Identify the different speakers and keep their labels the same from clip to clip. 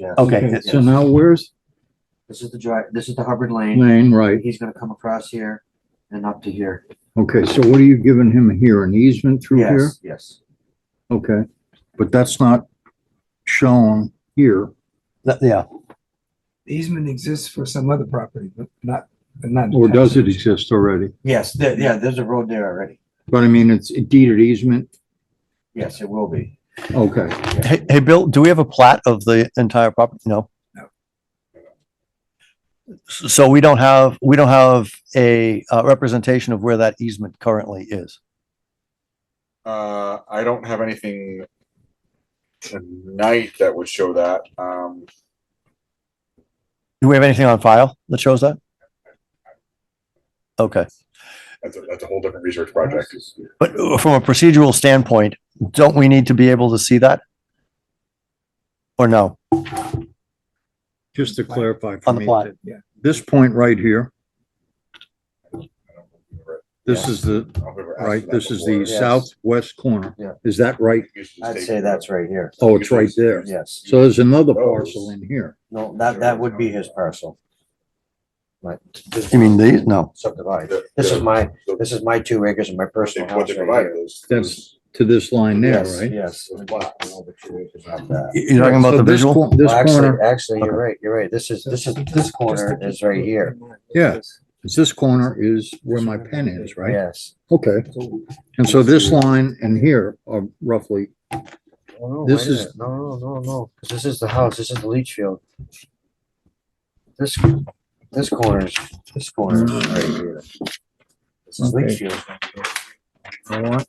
Speaker 1: Yes.
Speaker 2: Okay,
Speaker 1: Yes.
Speaker 2: so now where's
Speaker 1: This is the drive, this is the Hubbard Lane.
Speaker 2: Lane, right?
Speaker 1: He's gonna come across here and up to here.
Speaker 2: Okay, so what are you giving him here, an easement through here?
Speaker 1: Yes, yes.
Speaker 2: Okay, but that's not shown here.
Speaker 3: That, yeah,
Speaker 4: The easement exists for some other property, but not, but not.
Speaker 2: Or does it exist already?
Speaker 1: Yes, there, yeah, there's a road there already.
Speaker 2: But I mean, it's deeded easement,
Speaker 1: Yes, it will be.
Speaker 2: okay.
Speaker 3: hey, hey, Bill, do we have a plat of the entire property? No?
Speaker 4: No.
Speaker 3: S- So we don't have, we don't have a, uh, representation of where that easement currently is.
Speaker 5: Uh, I don't have anything tonight that would show that. Um,
Speaker 3: Do we have anything on file that shows that? Okay,
Speaker 5: that's a, that's a whole different research project.
Speaker 3: but uh, from a procedural standpoint, don't we need to be able to see that? Or no?
Speaker 2: Just to clarify for
Speaker 3: On the
Speaker 2: me,
Speaker 3: plot.
Speaker 2: that
Speaker 4: Yeah.
Speaker 2: this point right here,
Speaker 5: I don't think we've ever-
Speaker 2: this is the,
Speaker 5: I don't think we've ever asked
Speaker 2: right,
Speaker 5: that
Speaker 2: this is
Speaker 5: before.
Speaker 2: the
Speaker 1: Yes.
Speaker 2: southwest corner.
Speaker 1: Yeah.
Speaker 2: Is that right?
Speaker 5: Used to
Speaker 1: I'd
Speaker 5: take-
Speaker 1: say that's right here.
Speaker 2: Oh, it's right there.
Speaker 1: Yes.
Speaker 2: So there's another parcel in here.
Speaker 1: No, that, that would be his parcel. Right.
Speaker 3: You mean these? No.
Speaker 1: Subdivided.
Speaker 5: The-
Speaker 1: This is
Speaker 5: the-
Speaker 1: my,
Speaker 5: the-
Speaker 1: this is my two acres and my personal house
Speaker 5: What they
Speaker 1: right
Speaker 5: provided
Speaker 1: here.
Speaker 5: is.
Speaker 2: That's to this line there,
Speaker 1: Yes,
Speaker 2: right?
Speaker 1: yes.
Speaker 5: Those blocks.
Speaker 1: Over two acres of that.
Speaker 3: You- You're talking about
Speaker 2: So
Speaker 3: the
Speaker 2: this
Speaker 3: visual?
Speaker 2: cor- This
Speaker 1: Well, actually-
Speaker 2: corner,
Speaker 1: Actually, you're right, you're right. This is, this is, this corner is right here.
Speaker 2: Yeah. it's this corner is where my pen is, right?
Speaker 1: Yes.
Speaker 2: Okay, and so this line and here are roughly,
Speaker 1: Oh, no,
Speaker 2: This
Speaker 1: wait a
Speaker 2: is-
Speaker 1: minute. No, no, no, no, 'Cause this is the house, this is the leach field. This, this corner is, this corner is right here. This is leach field.
Speaker 2: you know what?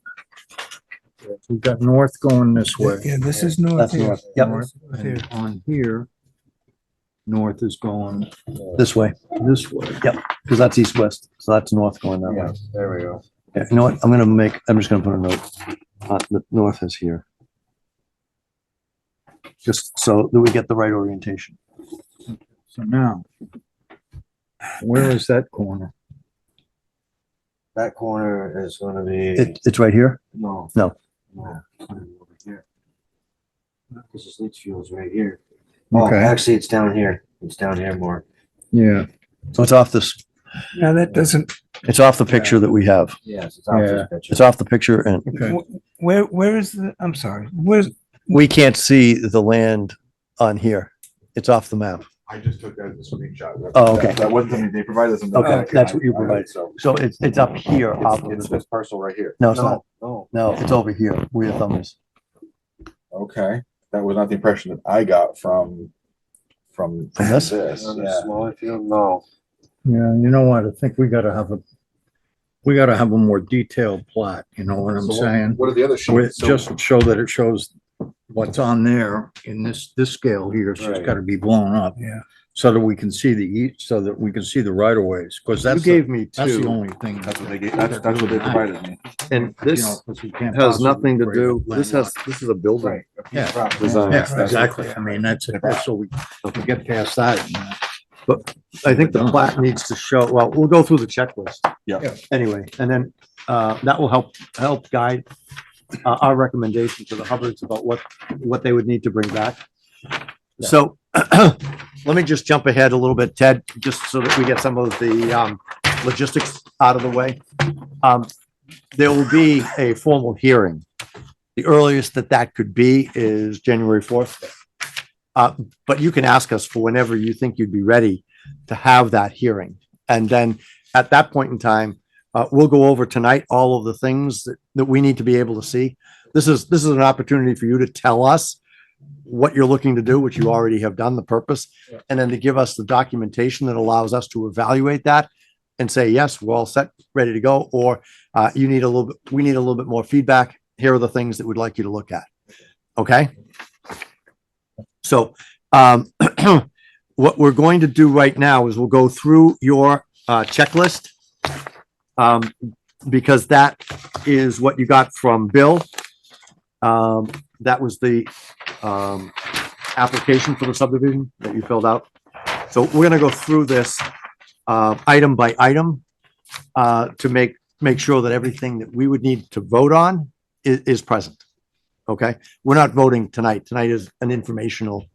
Speaker 2: We've got north going this way.
Speaker 4: Yeah, this is north
Speaker 3: That's
Speaker 4: here.
Speaker 3: north. Yep.
Speaker 4: North here.
Speaker 2: And on here, north is going
Speaker 3: This way,
Speaker 2: this way.
Speaker 3: because that's east-west, so that's north going that way.
Speaker 1: Yeah, there we go.
Speaker 3: Yeah, you know what? I'm gonna make, I'm just gonna put a note. Uh, the north is here. Just so that we get the right orientation.
Speaker 2: So now, where is that corner?
Speaker 1: That corner is gonna be,
Speaker 3: It, it's right here.
Speaker 1: no.
Speaker 3: no.
Speaker 1: No. it's gonna be over here. This is leach field's right here. Oh,
Speaker 2: Okay,
Speaker 1: actually, it's down here. It's down here more.
Speaker 2: yeah,
Speaker 3: So it's off this,
Speaker 4: Now, that doesn't,
Speaker 3: it's off the picture that we have.
Speaker 1: Yes, it's out
Speaker 2: Yeah.
Speaker 1: this picture.
Speaker 3: It's off the picture and
Speaker 2: okay.
Speaker 4: wh- where, where is the, I'm sorry, where's,
Speaker 3: we can't see the land on here. It's off the map.
Speaker 5: I just took that as a screenshot. That-
Speaker 3: Oh, okay.
Speaker 5: That wasn't something they provided us. in the
Speaker 3: Okay,
Speaker 5: packet.
Speaker 3: that's what you
Speaker 5: I- I-
Speaker 3: provided.
Speaker 5: So
Speaker 3: So it's, it's up here off
Speaker 5: it's
Speaker 3: of the,
Speaker 5: this parcel right here.
Speaker 3: no, it's not.
Speaker 1: No,
Speaker 3: No, it's over here where your thumb is.
Speaker 5: Okay, that was not the impression that I got from, from.
Speaker 3: From this?
Speaker 1: on
Speaker 5: yeah.
Speaker 1: the smaller field, no.
Speaker 2: Yeah, you know what, I think we gotta have a, we gotta have a more detailed plot, you know what I'm
Speaker 5: So
Speaker 2: saying?
Speaker 5: What are the other
Speaker 2: Where it
Speaker 5: sheets? So-
Speaker 2: just show that it shows what's on there in this, this scale here, it's just
Speaker 1: Right.
Speaker 2: gotta be blown up.
Speaker 4: Yeah.
Speaker 2: So that we can see the, each- so that we can see the right of ways, cause
Speaker 6: You
Speaker 2: that's, the-
Speaker 6: gave me
Speaker 2: that's the
Speaker 6: two,
Speaker 2: only thing.
Speaker 5: That's what they gave, that's, that's what they provided me.
Speaker 6: and
Speaker 2: you know,
Speaker 6: this
Speaker 2: 'cause we can't
Speaker 6: has
Speaker 2: possibly
Speaker 6: nothing to
Speaker 2: create
Speaker 6: do,
Speaker 2: a
Speaker 6: this has,
Speaker 2: landlocked-
Speaker 6: this is a building
Speaker 1: Right. a piece of
Speaker 2: Yeah.
Speaker 1: property.
Speaker 6: design.
Speaker 2: Yeah, exactly, I mean, that's, it. so we we get past that. you know.
Speaker 6: I think the plat needs to show, well, we'll go through the checklist.
Speaker 5: Yeah.
Speaker 2: Yeah.
Speaker 6: Anyway, and then, uh, that will help, help guide, uh, our recommendation to the Hubbards about what, what they would need to bring back. So, let me just jump ahead a little bit, Ted, just so that we get some of the, um, logistics out of the way. Um, there will be a formal hearing.
Speaker 3: The earliest that that could be is January fourth. Uh,
Speaker 6: but you can ask us for whenever you think you'd be ready to have that hearing. And then at that point in time, uh, we'll go over tonight all of the things that, that we need to be able to see. This is, this is an opportunity for you to tell us what you're looking to do, which you already have done, the purpose, and then to give us the documentation that allows us to evaluate that and say, yes, we're all set, ready to go, or, uh, you need a little, bit we need a little bit more feedback. Here are the things that we'd like you to look at. Okay? So, um, what we're going to do right now is we'll go through your, uh, checklist. Um, because that is what you got from Bill. Um, that was the, um, application for the subdivision that you filled out. So we're gonna go through this, uh, item by item, uh, to make, make sure that everything that we would need to vote on i- is present. Okay? We're not voting tonight. Tonight is an informational